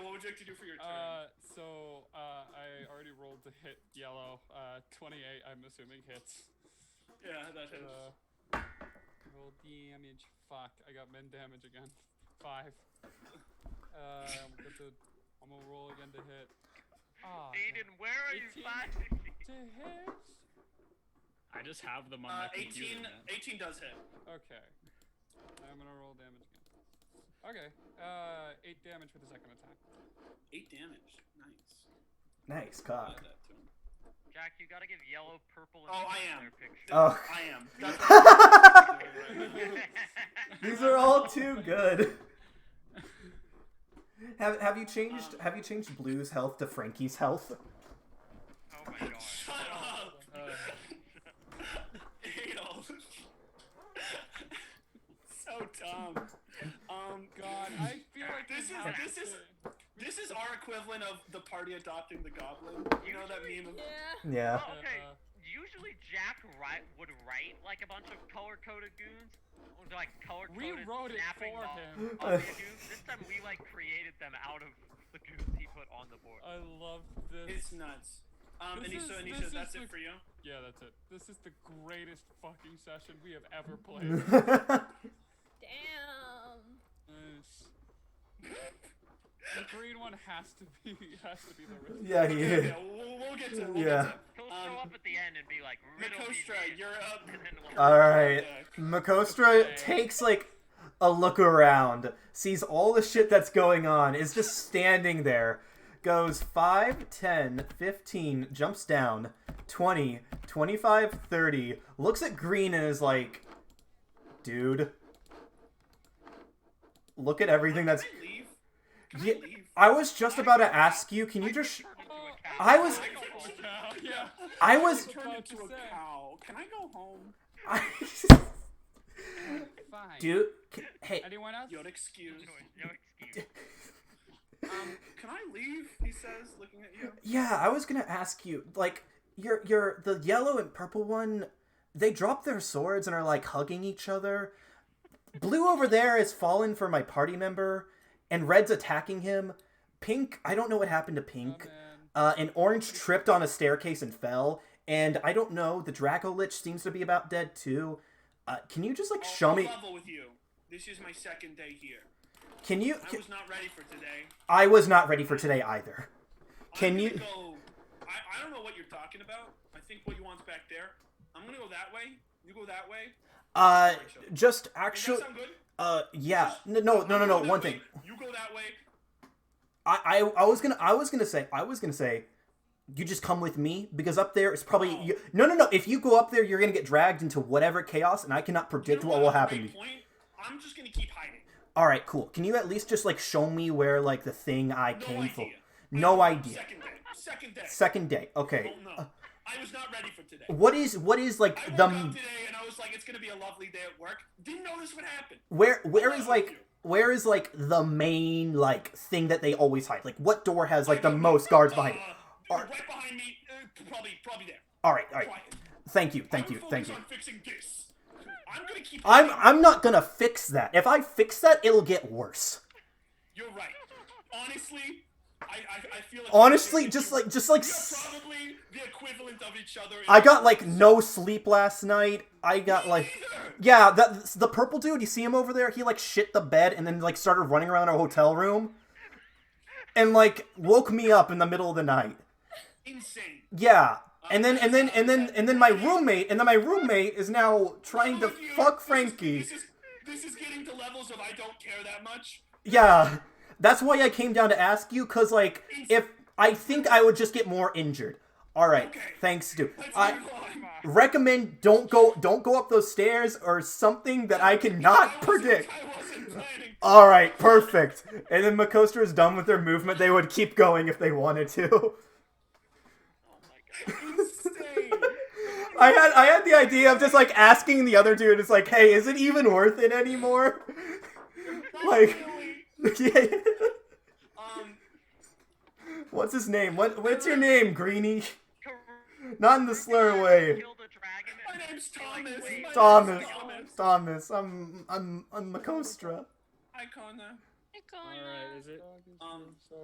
would you like to do for your turn? Uh, so uh, I already rolled to hit yellow. Uh, 28, I'm assuming hits. yeah, that hits. Uh, roll damage. Fuck, I got min damage again. Five. Uh, I'm, good to, I'm gonna roll again to hit. Ah, Aiden, where are you 18. finding me? to hit. I just have them on Uh, my 18, computer. man. 18 does hit. Okay. I'm gonna roll damage again. Okay. Uh, eight damage for the second attack. Eight damage. Nice. Nice I'll add cock. that to him. Jack, you gotta give yellow, purple, and Oh, I green am. their picture. Oh. I am. These are all too good. Have, have you changed have you changed Blue's health to Frankie's health? oh my god. Shut up. Uh, Adolf. so dumb. Um, God, I feel like This we is- have this to- is- this is our equivalent of the party adopting the goblin. You know that meme of Yeah. Yeah. Oh, okay. Uh, Usually Jack write, would write like a bunch of color-coded goons, or like color-coded We wrote it snapping for laws him. of the goons. This time we like created them out of the goons he put on the board. I love It's this. nuts. Um, This Anisha, is- this Anisha, is that's the- it for you. Yeah, that's it. This is the greatest fucking session we have ever played. Damn. Nice. The green one has to be has to be the risk. yeah, he Okay, is. okay, we'll, we'll get to it. We'll Yeah. He'll Um, show up at the end and be like, "Riddle me Makostra, this," you're up. and then we'll- All right. Makostra takes like a look around, sees all the shit that's going on, is just standing there, goes 5, 10, 15, jumps down, 20, 25, 30, looks at Green and is like, dude, look at everything that's. Can I leave? Can Ye- I leave? I was just about to ask you, can you just. sh- Oh. into a cow. I was- I go home. Yeah, yeah. I was. turned about to into a say. cow. Can I go home? I, Fine. dude, c- hey, Anyone else? You're excused. No, no excuse. Um, can I leave? He says, looking at you. Yeah, I was gonna ask you, like, your your the yellow and purple one, they drop their swords and are like hugging each other. Blue over there has fallen for my party member, and red's attacking him. Pink, I don't know what happened to Oh, pink. man. Uh, and orange tripped on a staircase and fell. And I don't know, the Draco Lich seems to be about dead too. Uh, can you just like I'll- show I'll me? level with you. This is my second day here. Can you? I was not ready for today. I was not ready for today either. Can I'm gonna you- Go, I, I don't know what you're talking about. I think what you want's back there. I'm gonna go that way. You go that way. Uh, Rachel. just Does actually, that sound good? uh, yeah, no, no, no, no, I'll go no. that One way, thing. You go that way. I, I I was gonna I was gonna say I was gonna say you just come with me because up there it's probably No. you, no no no if you go up there you're gonna get dragged into whatever chaos and I cannot You predict know what will That's a happen. to great you. Point. I'm just gonna keep hiding. All right, cool. Can you at least just like show me where like the thing I No came for? idea. No idea. Second day. Second day. Second day. Okay. Don't know. I was not ready for today. What is what is Oh, I like woke the up today and I was like, it's gonna be a lovely day at work. Didn't know this would happen. where where I'm is with like you. where is like the main like thing that they always hide? Like what door has like I the don't- most guards behind it? Uh, Are- Right behind me. Uh, probably, probably there. All right, all right. Quiet. Thank you. Thank I'm you. Thank focused you. On fixing this. I'm gonna keep. I'm hiding. I'm not gonna fix that. If I fix that, it'll get worse. You're right. Honestly, I I, I feel like Honestly, we- just like just like we s- are probably the equivalent of each other. in- I got like no sleep last night. I got like Neither. yeah, that the purple dude. You see him over there? He like shit the bed and then like started running around our hotel room, and like woke me up in the middle of the night. insane. Yeah. And then and then and then and then my roommate and then my roommate is now trying to All of you, fuck this is- Frankie. This is, this is getting to levels of I don't care that much. Yeah. That's why I came down to ask you, cause like if I think I would just get more injured. Alright, Okay. thanks dude. Let's I move on. recommend don't go don't go up those stairs or something that I I cannot wasn't- predict. I wasn't planning. Alright, perfect. And then Makostra is done with their movement, they would keep going if they wanted to. Oh my god. Insane. I had I had the idea of just like asking the other dude, it's like, hey, is it even worth it anymore? Not Like- really. Um. What's his name? What what's your name, Greenie? Kar- Not in the slur way. Killed a dragon. My name's Thomas. My name's Thomas. Thomas. Thomas. I'm I'm I'm Makostra. Hi, Connor. Hey, All Connor. right, is it? Um.